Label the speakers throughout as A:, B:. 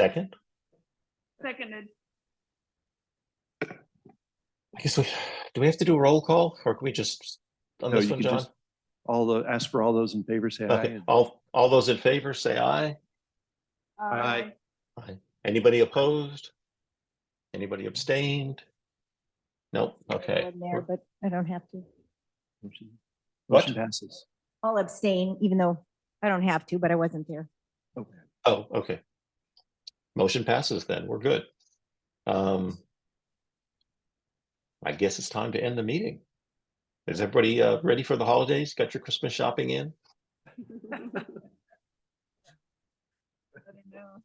A: Second?
B: Seconded.
A: I guess we, do we have to do a roll call or can we just, on
C: No,
A: this
C: you
A: one,
C: can
A: John?
C: just- All the, ask for all those in favor, say
A: Okay, Oh.
C: aye.
A: all, all those in favor, say aye.
B: Aye.
A: Anybody opposed? Anybody abstained? Nope, okay.
D: in there, but I don't have to.
C: Motion-
A: What?
C: Motion passes.
D: I'll abstain, even though I don't have to, but I wasn't there.
C: Okay.
A: Oh, okay. Motion passes then. We're good. Um. I guess it's time to end the meeting. Is everybody uh ready for the holidays? Got your Christmas shopping in?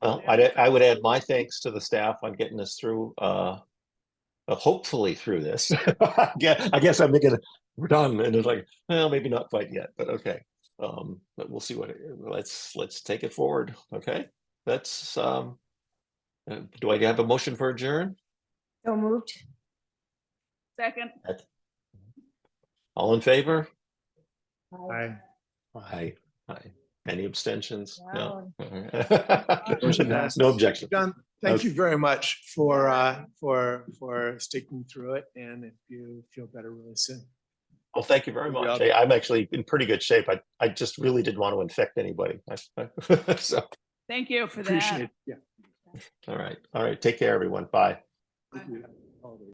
A: Well, I I would add my thanks to the staff on getting us through uh. uh, Hopefully through this. I guess, I guess I'm thinking, we're done and it's like, well, maybe not quite yet, but okay. Um, but we'll see what, it- let's, let's take it forward. Okay, that's um. uh, Do I have a motion for adjourn?
D: So moved.
B: Second.
A: All in favor?
C: Aye.
A: Aye. Aye. Any abstentions? No.
D: Wow.
C: Motion
A: No
C: passes.
A: no objection.
E: John,
A: Oh.
E: thank you very much for, uh, for, for sticking through it and if you feel better really soon.
A: Well, thank you very
E: Good
A: much.
E: job.
A: Hey, I'm actually in pretty good shape. I, I just really didn't want to infect anybody. I- I- So,
B: Thank you for that.
E: Appreciate it. Yeah.
A: all right, all right. Take care, everyone. Bye.
E: thank you.